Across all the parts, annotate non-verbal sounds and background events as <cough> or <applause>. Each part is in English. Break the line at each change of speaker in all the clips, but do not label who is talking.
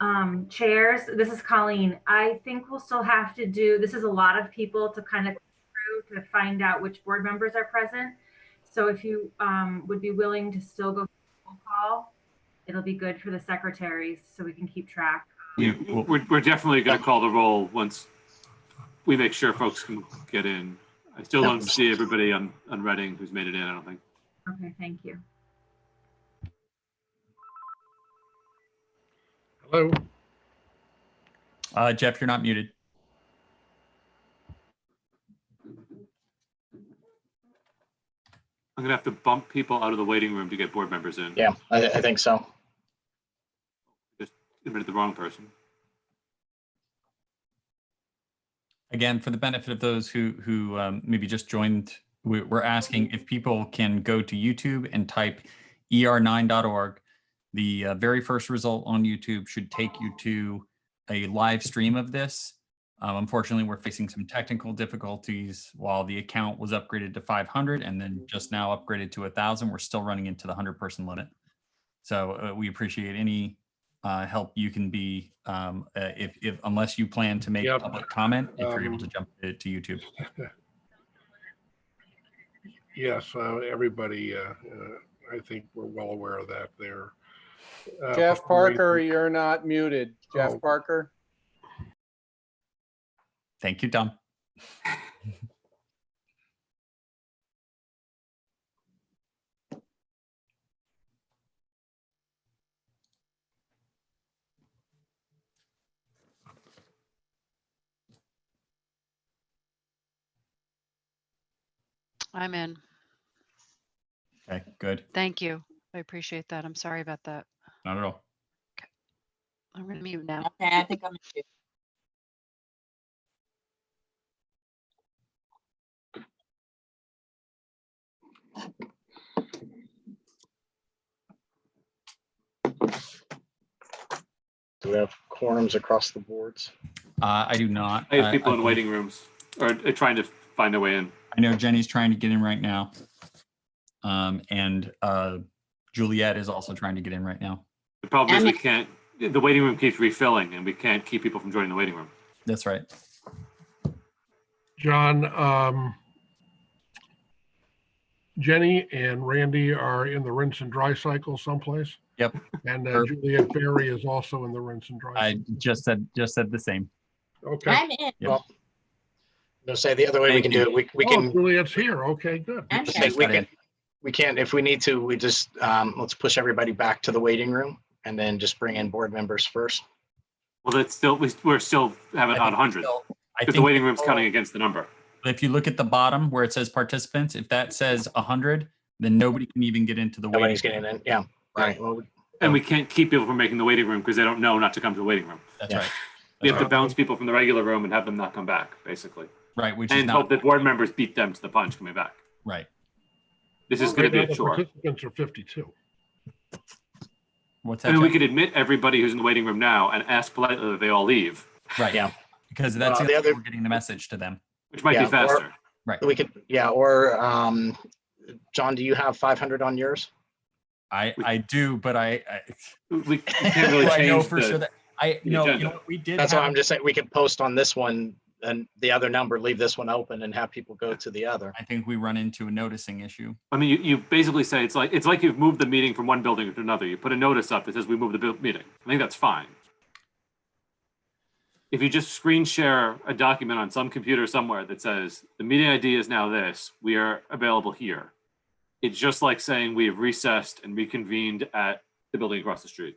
Um, chairs, this is Colleen. I think we'll still have to do, this is a lot of people to kind of through to find out which board members are present. So if you, um, would be willing to still go roll call, it'll be good for the secretaries so we can keep track.
Yeah, well,
We're, we're definitely gonna call the roll once we make sure folks can get in. I still don't see everybody on, on Reading who's made it in, I don't think.
Okay, thank you.
hello,
Uh, Jeff, you're not muted.
I'm gonna have to bump people out of the waiting room to get board members in.
Yeah, I, I think so.
Get rid of the wrong person.
Again, for the benefit of those who, who um, maybe just joined, we- we're asking if people can go to YouTube and type E er9.org. The uh, very first result on YouTube should take you to a live stream of this. Um, Unfortunately, we're facing some technical difficulties while the account was upgraded to 500 and then just now upgraded to 1,000. We're still running into the 100 person limit. So uh, we appreciate any uh, help you can be, um, uh, if, if, unless you plan to make
Yep.
public comment, if you're able
Um,
to jump to to YouTube.
yes, uh, everybody, uh, uh, I think we're well aware of that there. Uh,
Jeff
before we-
Parker, you're not muted.
Oh.
Jeff Parker.
Thank you, Tom.
I'm in.
Okay, good.
Thank you. I appreciate that. I'm sorry about that.
Not at all.
I'm gonna mute now.
Okay, I think I'm. muted.
Do we have quorums across the boards?
Uh, I do not.
I have
I-
people
I
in
think-
waiting rooms or uh, trying to find their way in.
I know Jenny's trying to get in right now. Um, and, uh, Juliet is also trying to get in right now.
The problem is we
Emma-
can't, the waiting room keeps refilling and we can't keep people from joining the waiting room.
That's right.
John, um, Jenny and Randy are in the rinse and dry cycle someplace.
Yep.
And uh,
Sure.
Juliet Berry is also in the rinse and dry.
I just said, just said the same.
Okay.
I'm in.
No, say the other way we
Thank
can
you.
do it. We, we
Oh,
can,
Juliet's here. Okay, good.
I'm
just
in.
like, we
Got it.
can, we can, if we need to, we just, um, let's push everybody back to the waiting room and then just bring in board members first.
Well, that's still, we- we're still having
I
on
think
100.
still- I
If the
think
waiting room's counting against the number.
if you look at the bottom where it says participants, if that says hundred, then nobody can even get into the waiting.
Nobody's getting in, yeah. All right, well,
And we can't keep people from making the waiting room because they don't know not to come to the waiting room.
That's
Yeah.
right.
We have to
Uh-huh.
bounce people from the regular room and have them not come back, basically.
Right, which is
And
not,
hope the board members beat them to the punch coming back.
right.
This is going to
Right
be
now,
a
the
chore.
Participants are 52.
What's
I
that?
mean, we
Jeff?
could admit everybody who's in the waiting room now and ask politely that they all leave,
Right,
Yeah.
Because that's
Uh,
the
the
other,
other-
we're getting the message to them.
which might
Yeah,
be
or-
faster.
we could, yeah, or, um, John, do you have five hundred on yours?
I,
We-
I do, but I, I,
We we can't really
I know
change
for sure
the,
that, I,
the
no, you
agenda.
know, what we did.
That's why
have-
I'm just saying, we could post on this one and the other number, leave this one open and have people go to the other.
I think we run into a noticing issue.
I mean, you, you basically say it's like, it's like you've moved the meeting from one building to another. You put a notice up that says we moved the bu- meeting. I think that's fine. If you just screen share a document on some computer somewhere that says the meeting ID is now this, we are available here. It's just like saying we have recessed and reconvened at the building across the street.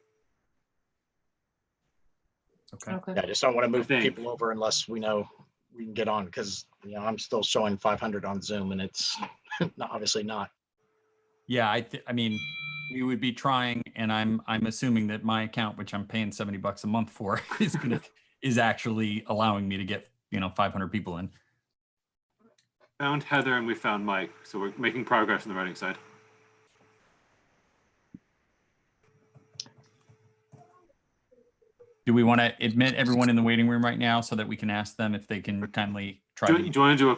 Okay.
Yeah, I just don't want to move
think.
people over unless we know we can get on, because, you know, I'm still showing five hundred on Zoom and it's <laughs> not- obviously not.
Yeah, I, thi- I mean, we would be trying and I'm, I'm assuming that my account, which I'm paying 70 bucks a month for <laughs> is gonna, is actually allowing me to get, you know, 500 people in.
Found Heather and we found Mike, so we're making progress on the writing side.
Do we want to admit everyone in the waiting room right now so that we can ask them if they can kindly try
Do
to?
you do you want to do a